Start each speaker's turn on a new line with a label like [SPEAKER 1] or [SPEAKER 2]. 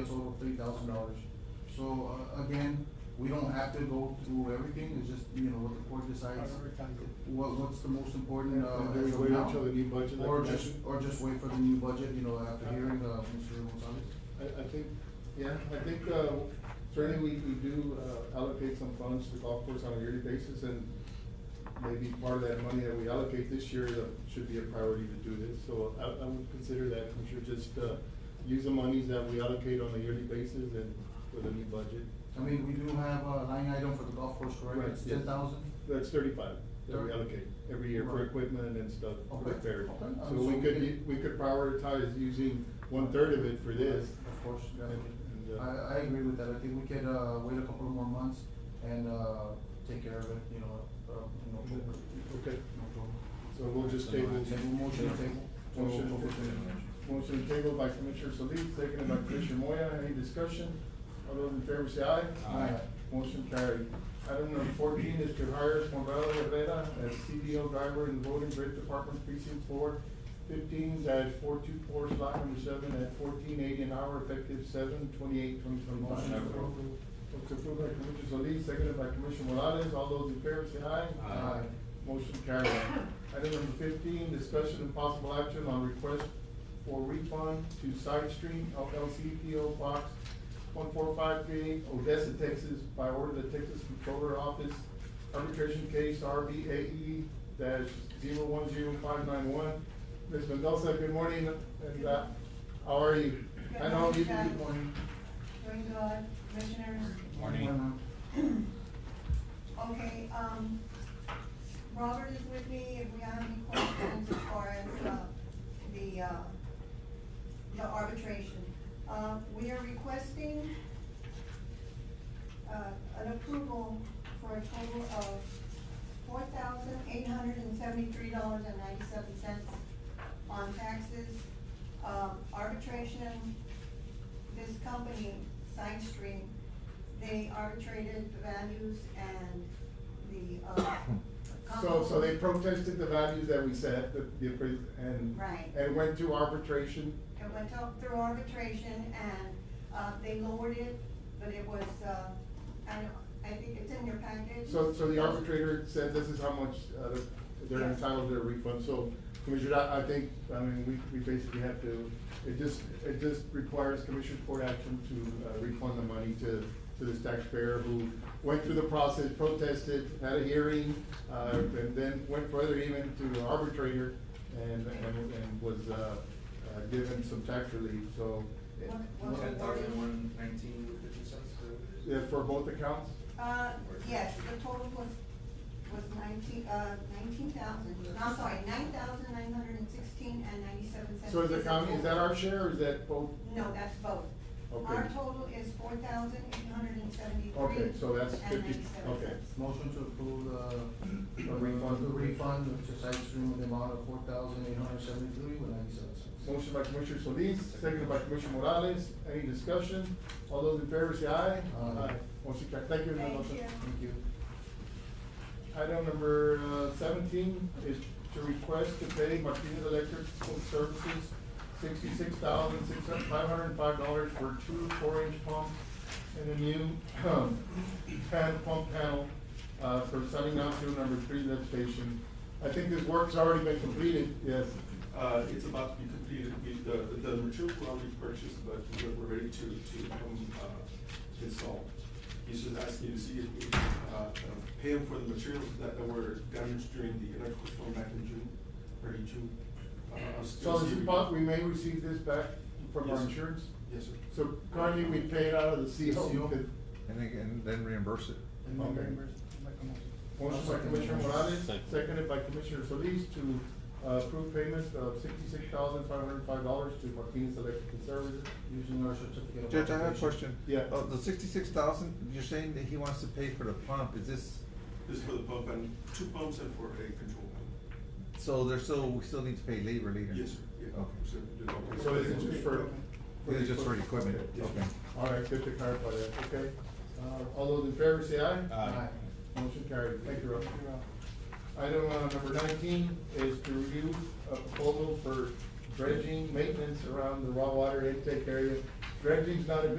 [SPEAKER 1] a total of three thousand dollars. So, uh, again, we don't have to go through everything, it's just, you know, what the court decides, what, what's the most important, uh,
[SPEAKER 2] And do we
[SPEAKER 1] as of
[SPEAKER 2] wait
[SPEAKER 1] now.
[SPEAKER 2] until the new budget
[SPEAKER 1] Or
[SPEAKER 2] application?
[SPEAKER 1] just, or just wait for the new budget, you know, after hearing, uh, Mr. Gonzalez.
[SPEAKER 2] I, I think, yeah, I think, uh, certainly we, we do uh, allocate some funds to golf course on a yearly basis and maybe part of that money that we allocate this year uh, should be a priority to do this. So I, I would consider that, we should just, uh, use the monies that we allocate on a yearly basis and for the new budget.
[SPEAKER 1] I mean, we do have a line item for the golf course, correct?
[SPEAKER 2] Right,
[SPEAKER 1] It's
[SPEAKER 2] yes.
[SPEAKER 1] ten thousand?
[SPEAKER 2] That's thirty-five that we
[SPEAKER 1] Thir-
[SPEAKER 2] allocate every year for
[SPEAKER 1] Right.
[SPEAKER 2] equipment and stuff
[SPEAKER 1] Okay,
[SPEAKER 2] repaired.
[SPEAKER 1] okay. Uh,
[SPEAKER 2] So
[SPEAKER 1] so
[SPEAKER 2] we
[SPEAKER 1] we
[SPEAKER 2] could,
[SPEAKER 1] can-
[SPEAKER 2] u- we could prioritize using one-third of it for this.
[SPEAKER 1] Of course,
[SPEAKER 2] And-
[SPEAKER 1] definitely.
[SPEAKER 2] and, uh,
[SPEAKER 1] I, I agree with that. I think we could, uh, wait a couple more months and, uh, take care of it, you know, uh, in October.
[SPEAKER 2] Okay.
[SPEAKER 1] In October.
[SPEAKER 2] So we'll just table.
[SPEAKER 1] Table motion, table.
[SPEAKER 2] Motion Motion tabled by Commissioner Solis, seconded by Commissioner Moya. Any discussion? All those in favor say aye.
[SPEAKER 1] Aye.
[SPEAKER 2] Motion carried. Item number fourteen is to hire Morel Rivera as CDL driver in Road and Bridge Department Precinct Four, fifteen dash four two four, slot number seven, at fourteen eighty an hour, effective seven twenty-eight, twenty twenty-one.
[SPEAKER 1] Motion approved.
[SPEAKER 2] Motion approved by Commissioner Solis, seconded by Commissioner Morales. All those in favor say
[SPEAKER 1] Aye.
[SPEAKER 2] aye.
[SPEAKER 1] Aye.
[SPEAKER 2] Motion carried. Item number fifteen, discussion and possible action on request for refund to Side Stream LLC PO Box one four five three, Odessa, Texas, by order of the Texas Controller Office, arbitration case RBAE E dash zero one zero five nine one. Ms. Mendoza, good morning, and, uh, how are you? I know you,
[SPEAKER 3] Good
[SPEAKER 2] you,
[SPEAKER 1] Morning.
[SPEAKER 3] Very good, commissioners.
[SPEAKER 4] Morning.
[SPEAKER 3] Okay, um, Robert is with me, if we have any questions as far as, uh, the, uh, the arbitration. Uh, we are requesting, uh, an approval for a total of four thousand eight hundred and seventy-three dollars and ninety-seven cents on taxes. Um, arbitration this company, Side Stream, they arbitrated the values and the, uh.
[SPEAKER 2] so, so they
[SPEAKER 3] company-
[SPEAKER 2] protested the values that we set, the, the, appra- and.
[SPEAKER 3] Right.
[SPEAKER 2] And went to arbitration.
[SPEAKER 3] It went up through arbitration and, uh, they lowered it, but it was, uh, I don't, I think it's in your package.
[SPEAKER 2] So, so the arbitrator said this is how much, uh, they're
[SPEAKER 3] Yes.
[SPEAKER 2] entitled to a refund, so, Commissioner, I, I think, I mean, we, we basically have to, it just, it just requires Commissioner Court action to uh, refund the money to, to this taxpayer who went through the process, protested, had a hearing, uh, and then went further even to the arbitrator and, and, and was, uh, uh, given some tax relief, so. it-
[SPEAKER 3] What- what-
[SPEAKER 4] Ten thousand one nineteen fifty cents, is that what it is?
[SPEAKER 2] Yeah, for both accounts?
[SPEAKER 3] Uh, yes, the total was, was nineteen, uh, nineteen thousand, no, I'm sorry, nine thousand nine hundred and sixteen and ninety-seven cents.
[SPEAKER 2] So is the county, is that
[SPEAKER 3] total.
[SPEAKER 2] our share, or is that both?
[SPEAKER 3] No, that's both.
[SPEAKER 2] Okay.
[SPEAKER 3] Our total is four thousand eight hundred and seventy-three.
[SPEAKER 2] Okay, so that's 50 okay.
[SPEAKER 1] Motion to approve, uh,
[SPEAKER 2] A refund.
[SPEAKER 1] The refund to Side Stream in the amount of four thousand eight hundred seventy-three with ninety-seven cents.
[SPEAKER 2] Motion by Commissioner Solis, seconded by Commissioner Morales. Any discussion? All those in favor say aye.
[SPEAKER 1] Aye.
[SPEAKER 2] Motion carried. Thank you, Ms.
[SPEAKER 3] Thank
[SPEAKER 2] Mendoza.
[SPEAKER 3] you.
[SPEAKER 1] Thank you.
[SPEAKER 2] Item number uh, seventeen is to request to pay Martinez Electric School Services sixty-six thousand, six hundred, five hundred and five dollars for two four-inch pumps and a new pan, pump panel, uh, for signing out to number three lift station. I think this work's already been completed, yes.
[SPEAKER 5] Uh, it's about to be completed, we, the, the material we already purchased, but we're, we're ready to, to, um, uh, install. He's just asking to see if we, uh, uh, pay him for the materials that, that were damaged during the electrical storm back in June, early June. Uh, I'll
[SPEAKER 2] So
[SPEAKER 5] still
[SPEAKER 2] this
[SPEAKER 5] see-
[SPEAKER 2] is, about- we may receive this back from our
[SPEAKER 5] Yes, sir.
[SPEAKER 2] insurance?
[SPEAKER 5] Yes, sir.
[SPEAKER 2] So currently, we pay it out of the CO.
[SPEAKER 1] CO.
[SPEAKER 2] because-
[SPEAKER 6] And then, and then reimburse it.
[SPEAKER 1] And then
[SPEAKER 2] Okay.
[SPEAKER 1] reimburse-
[SPEAKER 2] Motion by Commissioner Morales, seconded by Commissioner Solis to uh, approve payment of sixty-six thousand five hundred and five dollars to Martinez Electric Services.
[SPEAKER 1] using our certificate of.
[SPEAKER 6] Judge, I have a
[SPEAKER 1] occupation.
[SPEAKER 6] question.
[SPEAKER 2] Yeah.
[SPEAKER 6] Uh, the sixty-six thousand, you're saying that he wants to pay for the pump, is this,
[SPEAKER 5] This is for the pump and two pumps and for a control panel.
[SPEAKER 6] so there's still, we still need to pay labor later?
[SPEAKER 5] Yes, sir, yeah.
[SPEAKER 6] Okay.
[SPEAKER 5] Sir, the-
[SPEAKER 2] So is it just for?
[SPEAKER 6] It's just for equipment,
[SPEAKER 5] Yes, sir.
[SPEAKER 6] okay.
[SPEAKER 2] All right, good to clarify that, okay. Uh, All those in favor say aye.
[SPEAKER 1] Aye.
[SPEAKER 2] Motion carried. Thank you, Rob. Item uh, number nineteen is to review a proposal for dredging maintenance around the raw water intake area. Dredging's not a good